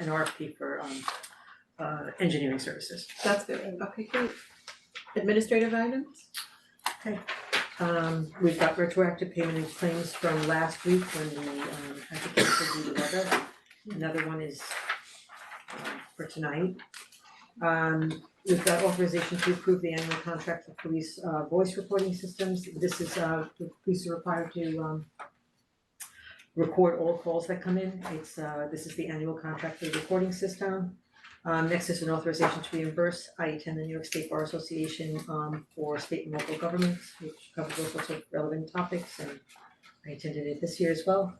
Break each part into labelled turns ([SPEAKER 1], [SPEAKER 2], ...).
[SPEAKER 1] an RFP for um uh engineering services.
[SPEAKER 2] That's good, okay, great. Administrative items?
[SPEAKER 1] Um we've got retroactive payment and claims from last week when we um had to cancel due to weather. Another one is um, for tonight. Um we've got authorization to approve the annual contract for police uh voice recording systems. This is uh the police are required to um record all calls that come in. It's uh this is the annual contract for the recording system. Um next is an authorization to reimburse, I attend the New York State Bar Association um for state and local governments, which covers all sorts of relevant topics and I attended it this year as well.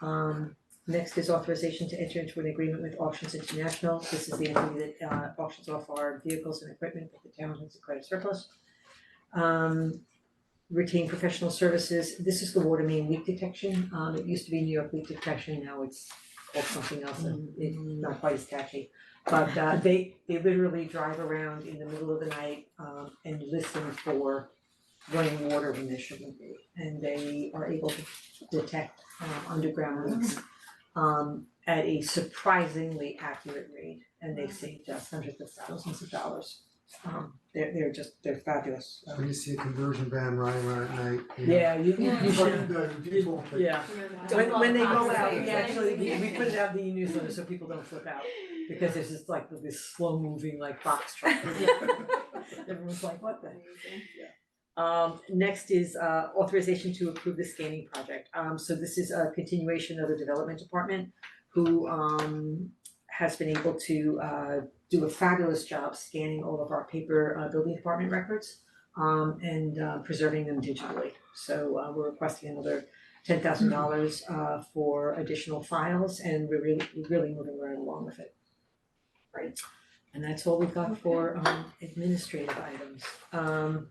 [SPEAKER 1] Um next is authorization to enter into an agreement with Auctions International, this is the entity that uh auctions off our vehicles and equipment that the town has declared surplus. Um retain professional services, this is the water main leak detection, um it used to be New York leak detection, now it's called something else and it's not quite as catchy. But uh they they literally drive around in the middle of the night um and listen for running water when there shouldn't be. And they are able to detect um underground leaks um at a surprisingly accurate rate and they saved us hundreds of thousands of dollars. Um they're they're just, they're fabulous. Um,
[SPEAKER 3] When you see a conversion van riding around at night, you know.
[SPEAKER 1] Yeah, you you should,
[SPEAKER 3] people, like,
[SPEAKER 1] yeah. When when they go out, we
[SPEAKER 4] Yeah.
[SPEAKER 1] actually, we we put it out in the newsletter so people don't flip out, because it's just like this slow moving like box truck. Everyone's like, what the? Um next is uh authorization to approve the scanning project, um so this is a continuation of the development department who um has been able to uh do a fabulous job scanning all of our paper uh building department records um and uh preserving them digitally, so uh we're requesting another ten thousand dollars uh for additional files and we're really we're really moving right along with it.
[SPEAKER 4] Great.
[SPEAKER 1] And that's all we've got for um administrative items, um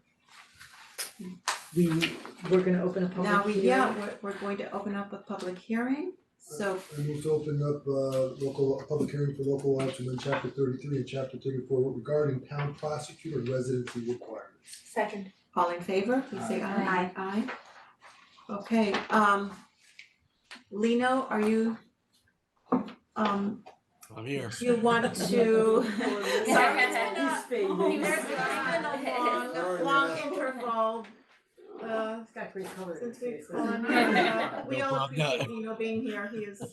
[SPEAKER 1] we we're gonna open a
[SPEAKER 2] Now,
[SPEAKER 1] public
[SPEAKER 2] we,
[SPEAKER 1] hearing.
[SPEAKER 2] yeah, we're, we're going to open up a public hearing, so,
[SPEAKER 5] I move to open up uh local, public hearing for local law to amend chapter thirty-three and chapter thirty-four regarding town prosecutor residency requirements.
[SPEAKER 4] Second.
[SPEAKER 2] all in favor, please say aye.
[SPEAKER 4] Aye.
[SPEAKER 2] Aye. Okay, um, Lino, are you, um,
[SPEAKER 6] I'm here.
[SPEAKER 2] you want to?
[SPEAKER 4] Sorry, I
[SPEAKER 2] had
[SPEAKER 1] He's
[SPEAKER 2] Oh,
[SPEAKER 1] fading.
[SPEAKER 2] There's been a long, long interval, uh,
[SPEAKER 1] It's got great color.
[SPEAKER 2] Since we
[SPEAKER 1] It's-
[SPEAKER 2] called him, uh, we
[SPEAKER 6] No
[SPEAKER 2] all
[SPEAKER 6] problem. No.
[SPEAKER 2] appreciate Nino being here, he is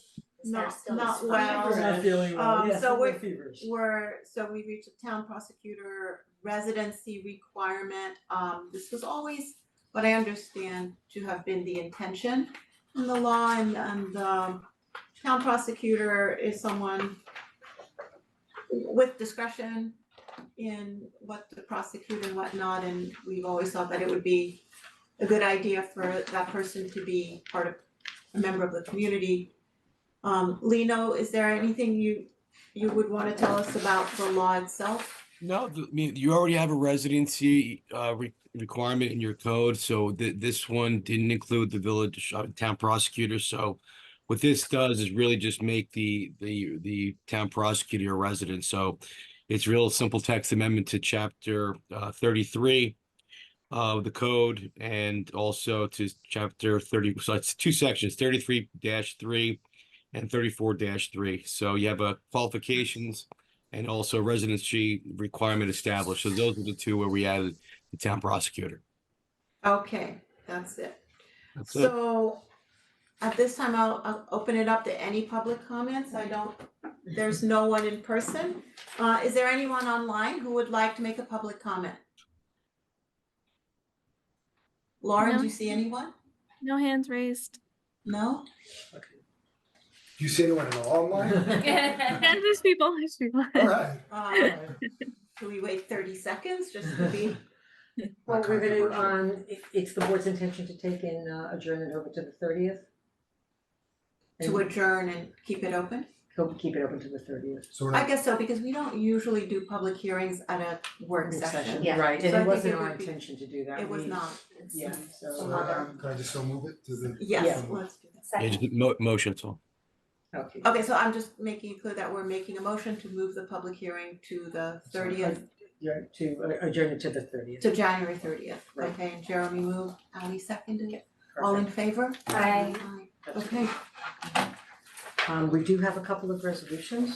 [SPEAKER 2] not,
[SPEAKER 4] still
[SPEAKER 2] not
[SPEAKER 4] is
[SPEAKER 1] He's
[SPEAKER 2] well.
[SPEAKER 1] not feeling
[SPEAKER 2] Um,
[SPEAKER 1] well, yes,
[SPEAKER 2] so
[SPEAKER 1] I'm
[SPEAKER 2] we're-
[SPEAKER 1] feverish.
[SPEAKER 2] We're, so we reached a town prosecutor residency requirement, um, this was always what I understand to have been the intention in the law and, and, um, town prosecutor is someone with discretion in what to prosecute and whatnot, and we've always thought that it would be a good idea for that person to be part of, a member of the community. Um, Lino, is there anything you, you would wanna tell us about the law itself?
[SPEAKER 6] No, th- I mean, you already have a residency uh, re- requirement in your code, so th- this one didn't include the village uh, town prosecutor. So what this does is really just make the the the town prosecutor a resident. So it's real simple text amendment to chapter uh, 33 of the code and also to chapter 30. So it's two sections, 33 3 and 34 3. So you have a qualifications and also residency requirement established. So those are the two where we added the town prosecutor.
[SPEAKER 2] Okay, that's it.
[SPEAKER 6] That's it.
[SPEAKER 2] So at this time, I'll, I'll open it up to any public comments. I don't, there's no one in person. Uh, is there anyone online who would like to make a public comment? Lauren, do you see anyone?
[SPEAKER 7] No hands raised.
[SPEAKER 2] No?
[SPEAKER 5] Do you see anyone in online?
[SPEAKER 7] And there's people, there's people.
[SPEAKER 5] Alright,
[SPEAKER 2] Uh, do we wait thirty seconds just to be,
[SPEAKER 1] Well, we're gonna, um, it- it's the board's intention to take and uh, adjourn it over to the thirtieth.
[SPEAKER 2] to adjourn and keep it open?
[SPEAKER 1] He'll keep it open to the thirtieth.
[SPEAKER 5] so we're
[SPEAKER 2] I
[SPEAKER 5] not,
[SPEAKER 2] guess so, because we don't usually do public hearings at a work session.
[SPEAKER 4] Yeah.
[SPEAKER 1] Right,
[SPEAKER 2] So I
[SPEAKER 1] and it
[SPEAKER 2] think
[SPEAKER 1] wasn't
[SPEAKER 2] it
[SPEAKER 1] our
[SPEAKER 2] would be-
[SPEAKER 1] intention to do that.
[SPEAKER 2] It was
[SPEAKER 1] We-
[SPEAKER 2] not.
[SPEAKER 1] Yeah,
[SPEAKER 5] so
[SPEAKER 1] so,
[SPEAKER 2] Another.
[SPEAKER 1] um,
[SPEAKER 5] can I just so move it to the?
[SPEAKER 2] Yes,
[SPEAKER 5] Yeah.
[SPEAKER 2] let's do that.
[SPEAKER 6] Yeah,
[SPEAKER 4] Second.
[SPEAKER 6] just mo- motion, that's all.
[SPEAKER 1] okay.
[SPEAKER 2] Okay, so I'm just making it clear that we're making a motion to move the public hearing to the thirtieth,
[SPEAKER 1] Yeah, to uh, adjourn it to the thirtieth.
[SPEAKER 2] to January thirtieth,
[SPEAKER 1] Right.
[SPEAKER 2] okay, and Jeremy moved, Ali seconded it, all in favor?
[SPEAKER 4] Aye.
[SPEAKER 2] Okay.
[SPEAKER 1] Um, we do have a couple of resolutions.